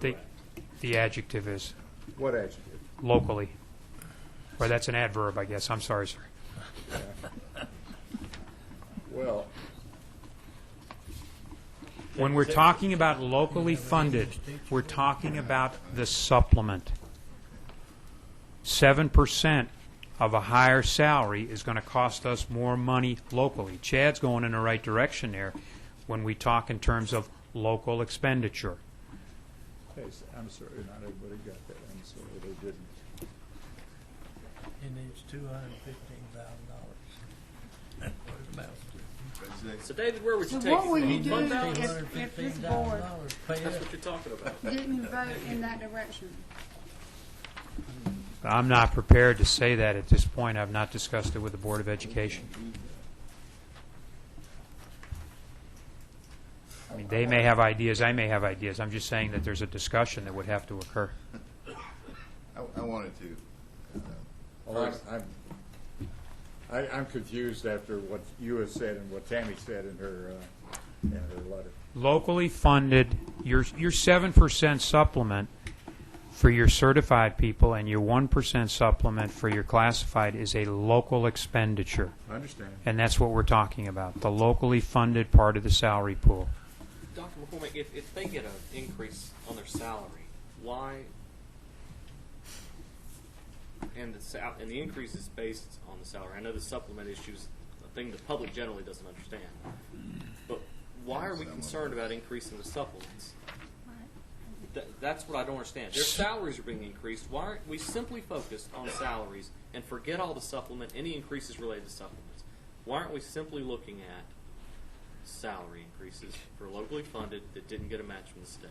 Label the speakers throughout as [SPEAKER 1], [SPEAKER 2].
[SPEAKER 1] The, the adjective is
[SPEAKER 2] What adjective?
[SPEAKER 1] locally. Or that's an adverb, I guess. I'm sorry, sir.
[SPEAKER 2] Well,
[SPEAKER 1] When we're talking about locally funded, we're talking about the supplement. Seven percent of a higher salary is going to cost us more money locally. Chad's going in the right direction there when we talk in terms of local expenditure.
[SPEAKER 2] hey, s- I'm sorry, not everybody got that. I'm sorry, they didn't.
[SPEAKER 3] It needs two hundred and fifteen thousand dollars. That's what it amounts to.
[SPEAKER 4] So David, where would
[SPEAKER 5] So
[SPEAKER 4] you take
[SPEAKER 5] what will you
[SPEAKER 4] it
[SPEAKER 5] do
[SPEAKER 4] from? One
[SPEAKER 5] if,
[SPEAKER 4] thousand?
[SPEAKER 3] $215,000
[SPEAKER 5] if this board
[SPEAKER 3] Pay
[SPEAKER 4] That's
[SPEAKER 3] it.
[SPEAKER 4] what you're talking about.
[SPEAKER 5] didn't vote in that direction?
[SPEAKER 1] I'm not prepared to say that at this point. I've not discussed it with the Board of Education. I mean, they may have ideas, I may have ideas. I'm just saying that there's a discussion that would have to occur.
[SPEAKER 6] I, I wanted to.
[SPEAKER 2] Well, I'm- I'm, I- I'm confused after what you have said and what Tammy said in her, uh, in her letter.
[SPEAKER 1] Locally funded, your, your 7% supplement for your certified people and your 1% supplement for your classified is a local expenditure.
[SPEAKER 2] I understand.
[SPEAKER 1] And that's what we're talking about, the locally funded part of the salary pool.
[SPEAKER 4] Dr. McCormick, if, if they get an increase on their salary, why? And the sal- and the increase is based on the salary. I know the supplement issue is a thing the public generally doesn't understand. But why are we concerned about increasing the supplements? Th- that's what I don't understand. Their salaries are being increased. Why aren't we simply focused on salaries and forget all the supplement, any increases related to supplements? Why aren't we simply looking at salary increases for locally funded that didn't get a match from the state?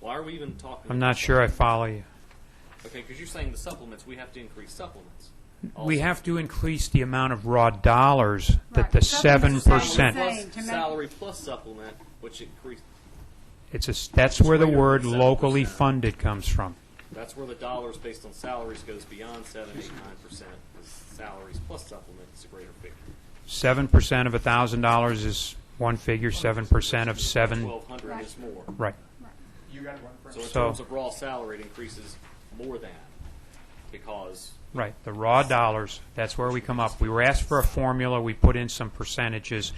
[SPEAKER 4] Why are we even talking?
[SPEAKER 1] I'm not sure I follow you.
[SPEAKER 4] Okay, because you're saying the supplements, we have to increase supplements.
[SPEAKER 1] We
[SPEAKER 4] Also.
[SPEAKER 1] have to increase the amount of raw dollars that
[SPEAKER 5] Right,
[SPEAKER 1] the
[SPEAKER 5] but supplements
[SPEAKER 1] seven
[SPEAKER 5] are
[SPEAKER 1] percent.
[SPEAKER 5] the
[SPEAKER 4] Plus
[SPEAKER 5] Saying to make-
[SPEAKER 4] salary plus supplement, which increase,
[SPEAKER 1] It's a, s- that's where the
[SPEAKER 4] Greater than
[SPEAKER 1] word
[SPEAKER 4] 7%.
[SPEAKER 1] locally funded comes from.
[SPEAKER 4] that's where the dollars based on salaries goes beyond seven, eight, nine percent. Because salaries plus supplement is a greater figure.
[SPEAKER 1] Seven percent of a thousand dollars is one figure, seven percent of seven,
[SPEAKER 4] Twelve hundred is more.
[SPEAKER 1] right.
[SPEAKER 4] So in
[SPEAKER 1] So-
[SPEAKER 4] terms of raw salary, it increases more than because
[SPEAKER 1] Right, the raw dollars, that's where we come up. We were asked for a formula, we put in some percentages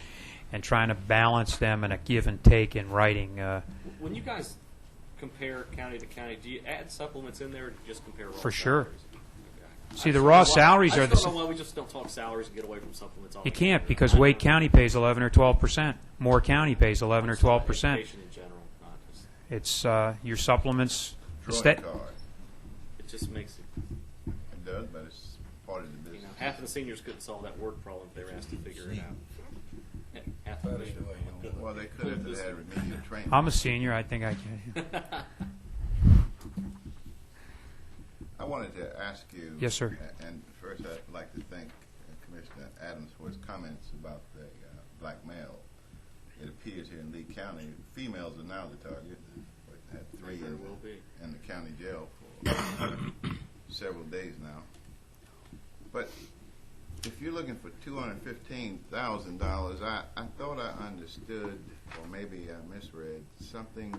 [SPEAKER 1] and trying to balance them in a give and take in writing. uh,
[SPEAKER 4] When you guys compare county to county, do you add supplements in there or do you just compare raw
[SPEAKER 1] For sure.
[SPEAKER 4] salaries? Okay.
[SPEAKER 1] See,
[SPEAKER 4] I
[SPEAKER 1] the raw
[SPEAKER 4] just don't know why-
[SPEAKER 1] salaries are
[SPEAKER 4] I
[SPEAKER 1] the
[SPEAKER 4] just don't
[SPEAKER 1] s-
[SPEAKER 4] know why we just don't talk salaries and get away from supplements all
[SPEAKER 1] You can't because Wade County pays eleven or twelve percent. Moore County pays eleven or twelve percent.
[SPEAKER 4] Education in general, not just,
[SPEAKER 1] It's, uh, your supplements, the
[SPEAKER 6] Drawing
[SPEAKER 1] stat-
[SPEAKER 6] card.
[SPEAKER 4] it just makes it,
[SPEAKER 6] It does, but it's part of the
[SPEAKER 4] you know,
[SPEAKER 6] business.
[SPEAKER 4] half of the seniors couldn't solve that word problem if they were asked to figure it out. Half of them.
[SPEAKER 6] Well, they could if they had remedial training.
[SPEAKER 1] I'm a senior. I think I can.
[SPEAKER 6] I wanted to ask you.
[SPEAKER 1] Yes, sir.
[SPEAKER 6] a- And first, I'd like to thank uh, Commissioner Adams for his comments about the uh, black male. It appears here in Lee County, females are now the target. We had three
[SPEAKER 4] They
[SPEAKER 6] in
[SPEAKER 4] will
[SPEAKER 6] the,
[SPEAKER 4] be.
[SPEAKER 6] in the county jail for several days now. But if you're looking for two hundred fifteen thousand dollars, I, I thought I understood, or maybe I misread something,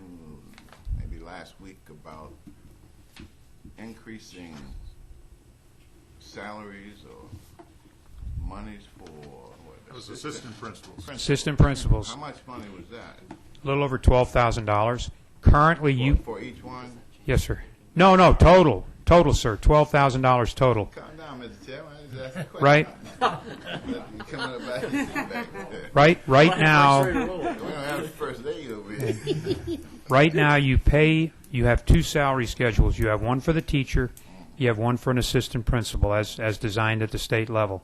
[SPEAKER 6] maybe last week about increasing salaries or monies for what? It was assistant principals.
[SPEAKER 1] Assistant principals,
[SPEAKER 6] How much money was that?
[SPEAKER 1] a little over twelve thousand dollars. Currently, you
[SPEAKER 6] For each one?
[SPEAKER 1] yes, sir. No, no, total, total, sir, twelve thousand dollars total.
[SPEAKER 6] Calm down, Mr. Chairman, I just asked a question.
[SPEAKER 1] Right,
[SPEAKER 6] You coming up back- back there.
[SPEAKER 1] right, right
[SPEAKER 4] Straight
[SPEAKER 1] now,
[SPEAKER 4] or roll.
[SPEAKER 6] We don't have the first aid over here.
[SPEAKER 1] right now, you pay. You have two salary schedules. You have one for the teacher. You have one for an assistant principal, as as designed at the state level.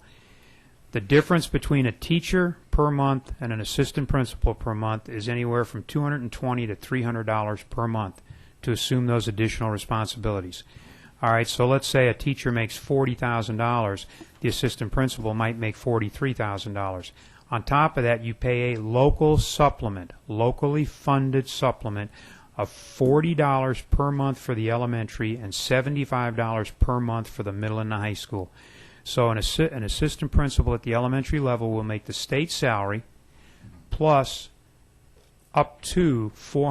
[SPEAKER 1] The difference between a teacher per month and an assistant principal per month is anywhere from two hundred and twenty to three hundred dollars per month to assume those additional responsibilities. All right, so let's say a teacher makes forty thousand dollars, the assistant principal might make forty-three thousand dollars. On top of that, you pay a local supplement, locally funded supplement of forty dollars per month for the elementary and seventy-five dollars per month for the middle and the high school. So an, assi- an assistant principal at the elementary level will make the state salary plus up to four